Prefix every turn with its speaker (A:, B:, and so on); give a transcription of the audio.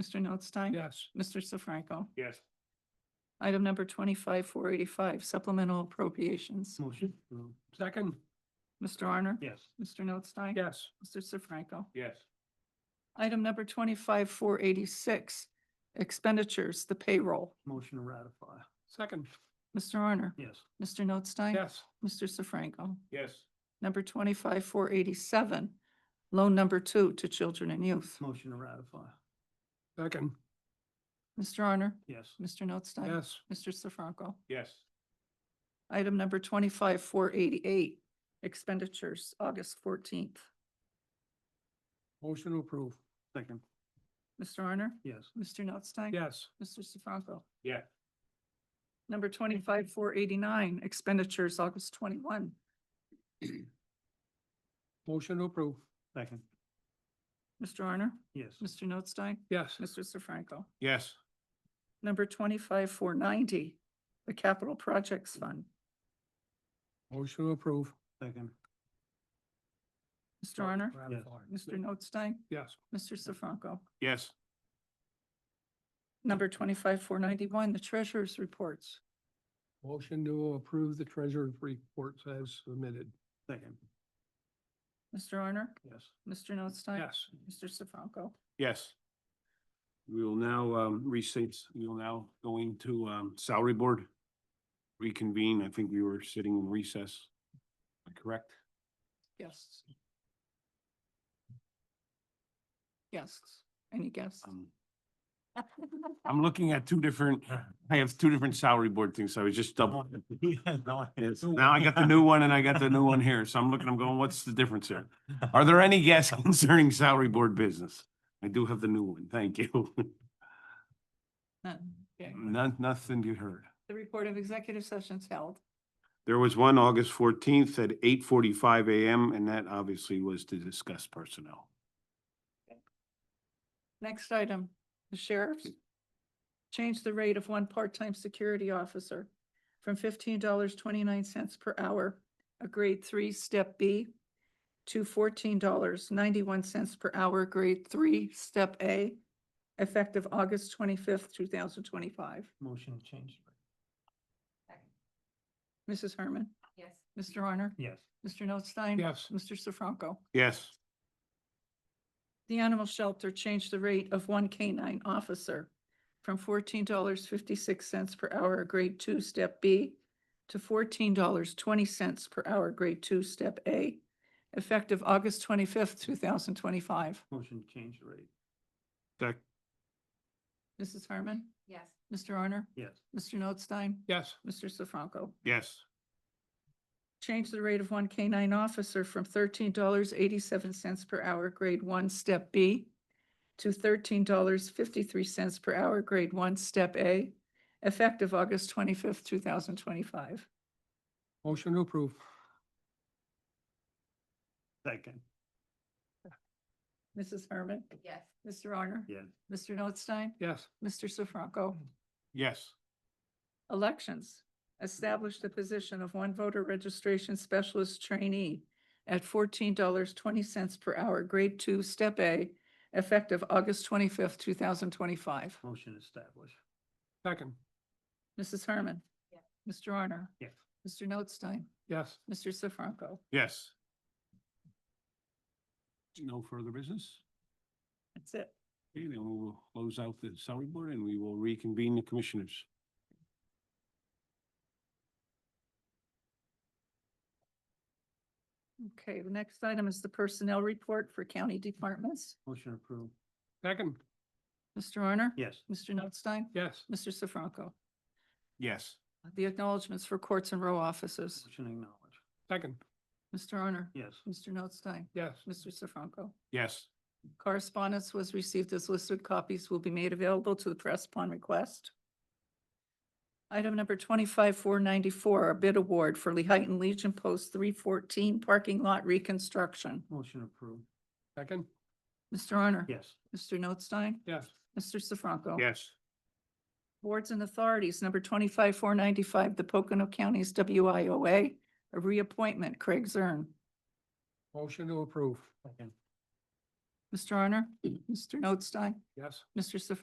A: Mr. Notstein?
B: Yes.
A: Mr. Sefranco?
B: Yes.
A: Item number twenty-five, four eighty-five, supplemental appropriations.
B: Motion. Second.
A: Mr. Arner?
B: Yes.
A: Mr. Notstein?
B: Yes.
A: Mr. Sefranco?
B: Yes.
A: Item number twenty-five, four eighty-six, expenditures, the payroll.
B: Motion to ratify. Second.
A: Mr. Arner?
B: Yes.
A: Mr. Notstein?
B: Yes.
A: Mr. Sefranco?
B: Yes.
A: Number twenty-five, four eighty-seven, loan number two to children and youth.
B: Motion to ratify. Second.
A: Mr. Arner?
B: Yes.
A: Mr. Notstein?
B: Yes.
A: Mr. Sefranco?
B: Yes.
A: Item number twenty-five, four eighty-eight, expenditures, August fourteenth.
B: Motion to approve. Second.
A: Mr. Arner?
B: Yes.
A: Mr. Notstein?
B: Yes.
A: Mr. Sefranco?
B: Yeah.
A: Number twenty-five, four eighty-nine, expenditures, August twenty-one.
B: Motion to approve. Second.
A: Mr. Arner?
B: Yes.
A: Mr. Notstein?
B: Yes.
A: Mr. Sefranco?
B: Yes.
A: Number twenty-five, four ninety, the Capital Projects Fund.
B: Motion to approve. Second.
A: Mr. Arner? Mr.
B: Yes.
A: Notstein?
B: Yes.
A: Mr. Sefranco?
B: Yes.
A: Number twenty-five, four ninety-one, the Treasurer's Reports.
B: Motion to approve the treasurer's reports as submitted. Second.
A: Mr. Arner?
B: Yes.
A: Mr. Notstein? Mr. Sefranco?
C: Yes. We will now um recess, we will now go into um salary board. Reconvene, I think we were sitting in recess. Am I Correct?
A: Yes. Yes, any guess?
C: Um, I'm looking at two different, I have two different salary board things, so I was just double. Yes, Now I got the new one and I got the new one here, so I'm looking, I'm going, what's the difference here? Are there any guests concerning salary board business? I do have the new one, thank you.
A: None. Okay.
C: None, nothing you heard.
A: The report of executive sessions held.
C: There was one August fourteenth at eight forty-five AM, and that obviously was to discuss personnel.
A: Next item, the sheriff's. Change the rate of one part-time security officer from fifteen dollars twenty-nine cents per hour, a grade three, step B, to fourteen dollars ninety-one cents per hour, grade three, step A, effective August twenty-fifth, two thousand twenty-five.
B: Motion to change.
A: Mrs. Herman? Yes. Mr. Honor?
B: Yes.
A: Mr. Notstein?
B: Yes.
A: Mr. Sefranco?
C: Yes,
A: The animal shelter changed the rate of one canine officer from fourteen dollars fifty-six cents per hour, grade two, step B, to fourteen dollars twenty cents per hour, grade two, step A, effective August twenty-fifth, two thousand twenty-five.
B: Motion to change the rate.
C: that,
A: Mrs. Harmon?
D: Yes.
A: Mr. Arner?
B: Yes.
A: Mr. Notstein?
B: Yes.
A: Mr. Sefranco?
C: yes,
A: Change the rate of one canine officer from thirteen dollars eighty-seven cents per hour, grade one, step B, to thirteen dollars fifty-three cents per hour, grade one, step A, effective August twenty-fifth, two thousand twenty-five.
B: Motion to approve. Second.
A: Mrs. Herman?
D: Yes.
A: Mr. Honor?
B: Yes.
A: Mr. Notstein?
B: Yes.
A: Mr. Sefranco?
C: yes,
A: Elections. Establish the position of one voter registration specialist trainee at fourteen dollars twenty cents per hour, grade two, step A, effective August twenty-fifth, two thousand twenty-five.
B: Motion established. Second.
A: Mrs. Herman?
D: Yes.
A: Mr. Arner?
B: Yes.
A: Mr. Notstein?
B: Yes.
A: Mr. Sefranco?
C: yes. No further business?
A: That's it.
C: Okay, then we will close out the salary board and we will reconvene the commissioners.
A: Okay, the next item is the personnel report for county departments.
B: Motion approved. Second.
A: Mr. Arner?
B: Yes.
A: Mr. Notstein?
B: Yes.
A: Mr. Sefranco?
C: Yes,
A: The acknowledgements for courts and row offices.
B: Motion acknowledged. Second.
A: Mr. Arner?
B: Yes.
A: Mr. Notstein?
B: Yes.
A: Mr. Sefranco?
C: yes,
A: Correspondence was received as listed copies will be made available to the press upon request. Item number twenty-five, four ninety-four, a bid award for Lehighton Legion Post three fourteen parking lot reconstruction.
B: Motion approved. Second.
A: Mr. Honor?
B: Yes.
A: Mr. Notstein?
B: Yes.
A: Mr. Sefranco?
C: yes,
A: Boards and authorities, number twenty-five, four ninety-five, the Pocono County's WIOA, a reappointment, Craig Zern.
B: Motion to approve. Second.
A: Mr. Honor?
B: Yes.
A: Mr. Notstein? Mr. Sefranco?